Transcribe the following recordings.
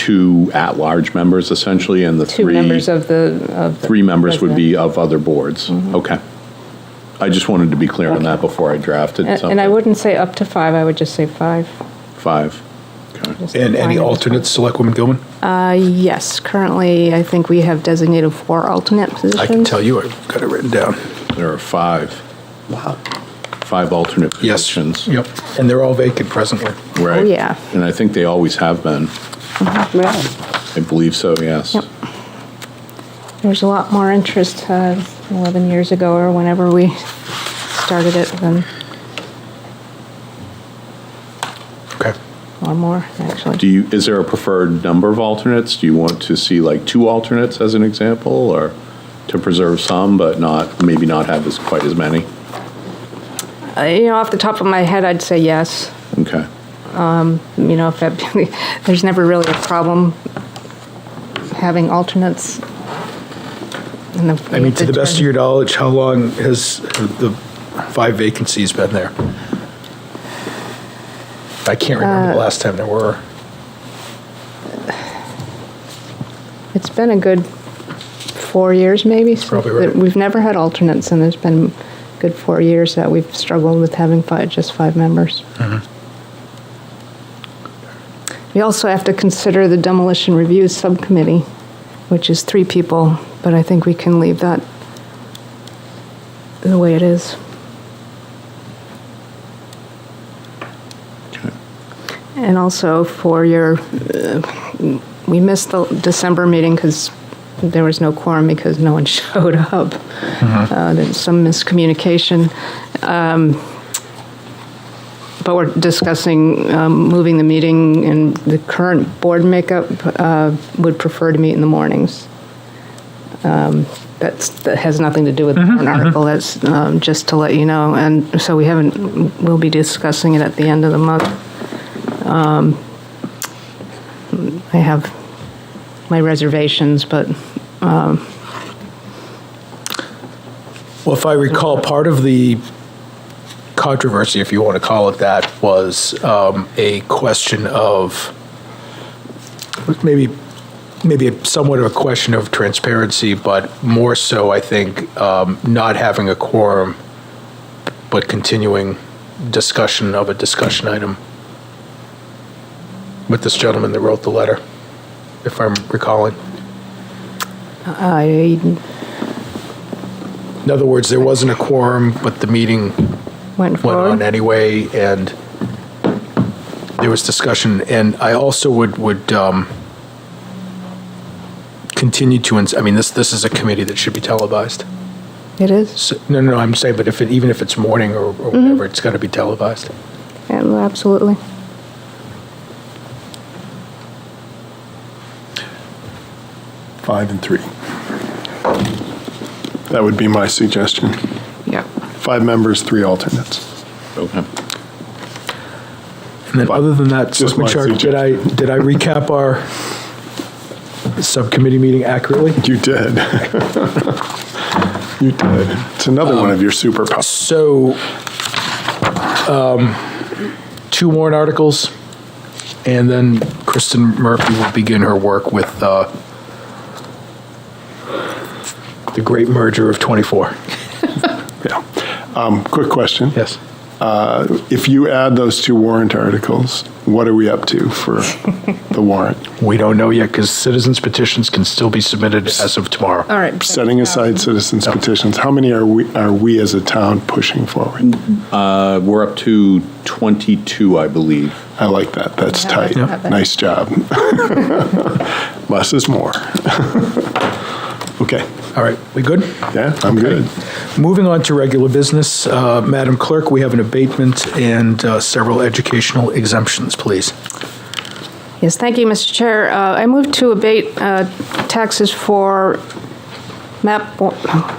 two at-large members essentially, and the Two three. members of the, of. the Three members would president. Mm-hmm. be of other boards. Okay. I just wanted to be clear on that before I drafted And- something. And I wouldn't say up to five, I would just say five. Five. Okay. Just And any five. alternates, Selectwoman Gilman? Yes, currently, I think we have designated four alternate positions. I can tell you, I've got it written down. There are five. Wow. Five alternate Yes. positions. Yep, and they're all vacant presently. Right. Oh, yeah. And I think they always have been. Right. I believe so, yes. Yep. There's a lot more interest uh, 11 years ago or whenever we started it than, Okay. or more, actually. Do you, is there a preferred number of alternates? Do you want to see like two alternates as an example, or to preserve some, but not, maybe not have as, quite as many? Uh, You know, off the top of my head, I'd say yes. Okay. You know, if that, there's never really a problem having alternates. And if- I mean, to the best of your knowledge, how long has the five vacancies been there? I can't remember the last time there were. It's been a good four years, maybe. since probably right. that- We've never had alternates, and there's been good four years that we've struggled with having five, just five members. Uh-huh. We also have to consider the demolition review subcommittee, which is three people, but I think we can leave that the way it is. And also for your we missed the December meeting because there was no quorum because no one showed up. Uh, There's some miscommunication. Um, But we're discussing um, moving the meeting, and the current board makeup uh, would prefer to meet in the mornings. Um, That's, that has nothing to do with the warrant article, that's um, just to let you know. And so we haven't, we'll be discussing it at the end of the month. I have my reservations, but Well, if I recall, part of the controversy, if you want to call it that, was um, a question of maybe maybe somewhat of a question of transparency, but more so, I think, um, not having a quorum, but continuing discussion of a discussion item with this gentleman that wrote the letter, if I'm recalling. I, In other words, there wasn't a quorum, but the meeting went went on forward. anyway, and there was discussion, and I also would, would um, continue to, ins- I mean, this, this is a committee that should be televised. It is, So- No, no, no, I'm saying, but if, it even if it's morning or or whatever, it's got to be televised. and absolutely. five and three. That would be my suggestion. Yep. Five members, three alternates. Okay. And then, other than that, Just my Selectman Sharp, did I, did I recap our subcommittee meeting accurately? You did. You did. It's another one of your superpowers. So, um, two warrant articles, and then Kristen Murphy will begin her work with uh, the great merger of 24. Yeah. Um, Quick question. Yes. Uh, If you add those two warrant articles, what are we up to for the warrant? We don't know yet, because citizens petitions can still be submitted as of tomorrow. All right. Setting aside citizens petitions, how many are we, are we as a town pushing forward? Uh, We're up to 22, I believe. I like that. That's Yeah, I like tight. that better. Nice job. Less is more. Okay. All right, we good? Yeah, I'm good. Moving on to regular business, uh, Madam Clerk, we have an abatement and uh, several educational exemptions, please. Yes, thank you, Mr. Chair. Uh, I move to abate uh, taxes for map o-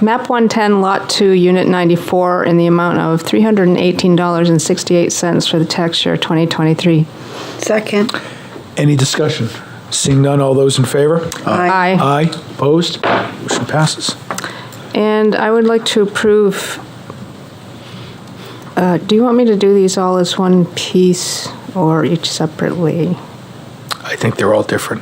map 110, Lot 2, Unit 94, in the amount of $318.68 for the tax year 2023. Second. Any discussion? Seeing none, all those in favor? Uh, Aye. Aye. Opposed? Motion passes. And I would like to approve, uh, do you want me to do these all as one piece or each separately? I think they're all different.